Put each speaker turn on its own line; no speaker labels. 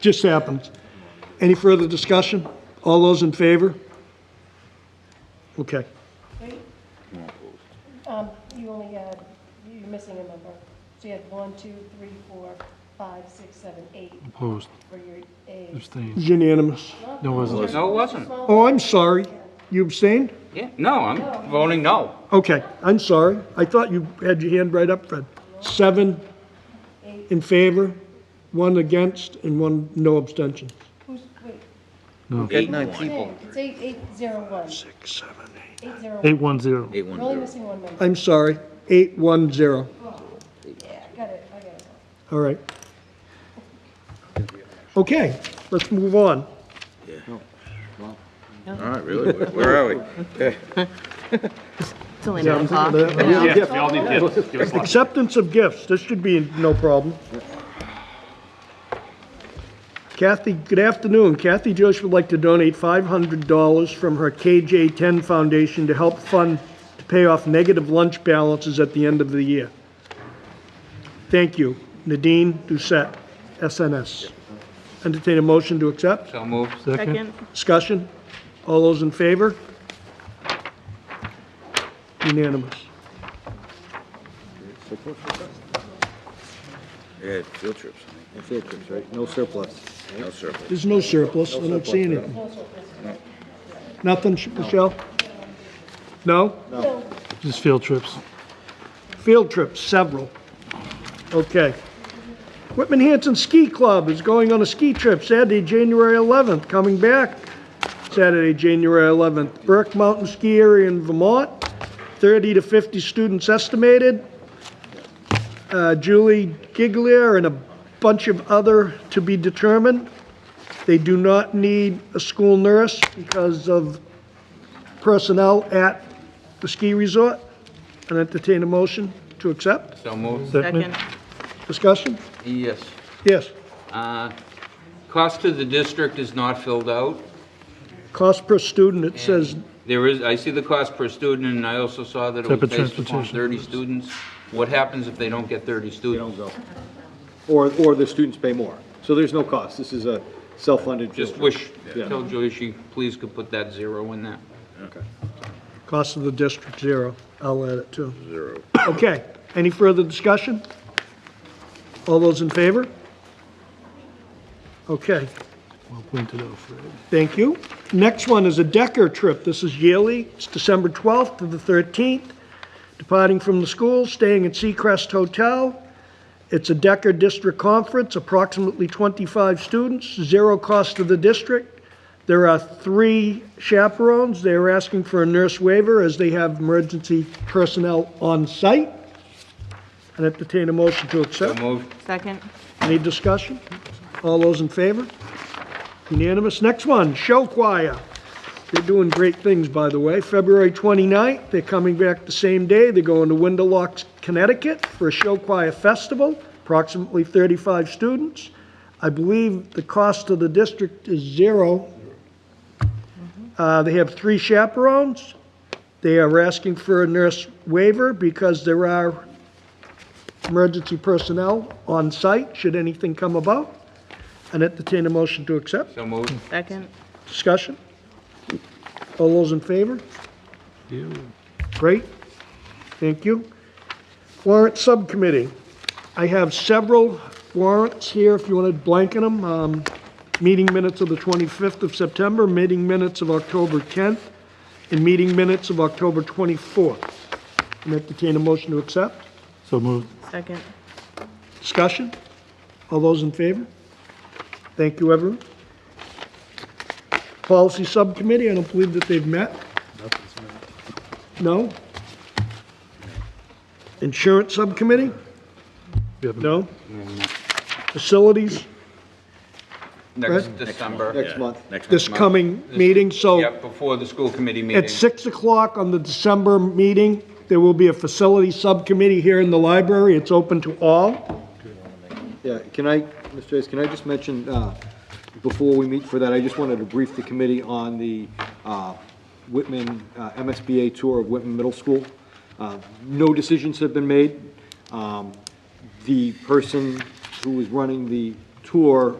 Just happens. Any further discussion? All those in favor? Okay.
Wait. Um, you only had, you're missing a number. So you had one, two, three, four, five, six, seven, eight
Opposed,
for your A.
abstained.
Unanimous.
No, wasn't.
No, it wasn't.
Oh, I'm sorry. You abstained?
Yeah, no, I'm voting no.
Okay, I'm sorry. I thought you had your hand right up, Fred. Seven in favor, one against, and one no abstention.
Who's, wait,
Eight
hey,
people.
it's eight, eight, zero, one.
Six, seven, eight.
Eight, zero, one.
Eight one zero.
Eight
You're
one
only
zero.
missing one number.
I'm sorry, eight, one, zero.
Yeah, I got it, I got it.
All right. Okay, let's move on.
All right, really? Where- Where are we?
It's only nine o'clock.
Acceptance of gifts, this should be no problem. Kathy, good afternoon. Kathy Joyce would like to donate $500 from her KJ10 Foundation to help fund, to pay off negative lunch balances at the end of the year. Thank you. Nadine Doucette, SNS. Entertain a motion to accept?
So moved.
Second.
Discussion? All those in favor? Unanimous.
Yeah, field trips.
Field trips, right? No surplus.
No surplus.
There's no surplus, I don't see anything. Nothing, Sh- Michelle? No?
Just field trips.
Field trips, several. Okay. Whitman Hanson Ski Club is going on a ski trip Saturday, January 11th, coming back Saturday, January 11th. Burke Mountain Ski Area in Vermont, 30 to 50 students estimated. Uh, Julie Giglier and a bunch of other to be determined. They do not need a school nurse because of personnel at the ski resort. And entertain a motion to accept.
So moved.
Second.
Discussion?
Yes.
Yes.
Cost to the district is not filled out.
Cost per student, it says,
There is, I see the cost per student, and I also saw that it was
Separate
based upon
transportation.
30 students. What happens if they don't get 30 students?
Or, or the students pay more. So there's no cost. This is a self-funded.
Just
field
wish,
Yeah.
tell Julie she please could put that zero in there.
trip. Okay.
cost of the district, zero. I'll add it too. Zero. Okay. Any further discussion? All those in favor? Okay.
Well pointed out, Fred.
Thank you. Next one is a Decker trip. This is yearly. It's December 12th to the 13th. Departing from the school, staying at Seacrest Hotel. It's a Decker District Conference, approximately 25 students, zero cost to the district. There are three chaperones. They're asking for a nurse waiver as they have emergency personnel on site. And entertain a motion to
So
accept.
moved.
Second.
Any discussion? All those in favor? Unanimous. Next one, show choir. They're doing great things, by the way. February 29th, they're coming back the same day. They're going to Windelocks, Connecticut for a show choir festival, approximately 35 students. I believe the cost of the district is zero. Uh, They have three chaperones. They are asking for a nurse waiver because there are emergency personnel on site, should anything come about, and entertain a motion to accept.
So moved.
Second.
Discussion? All those in favor? Great, thank you. Warrant Subcommittee. I have several warrants here, if you want to blanket them. Um, Meeting minutes of the 25th of September, meeting minutes of October 10th, and meeting minutes of October 24th. And entertain a motion to accept.
So moved.
Second.
Discussion? All those in favor? Thank you, everyone. Policy Subcommittee, I don't believe that they've met. No? Insurance Subcommittee?
We haven't-
No? Facilities,
Next
Right.
December.
Next month.
Next
this
month.
coming meeting, so
Yep, before the school committee meeting.
at 6 o'clock on the December meeting, there will be a Facility Subcommittee here in the library. It's open to all.
Yeah, can I, Mr. Hayes, can I just mention, uh, before we meet for that, I just wanted to brief the committee on the uh, Whitman, uh, MSBA tour of Whitman Middle School. Uh, No decisions have been made. Um, The person who is running the tour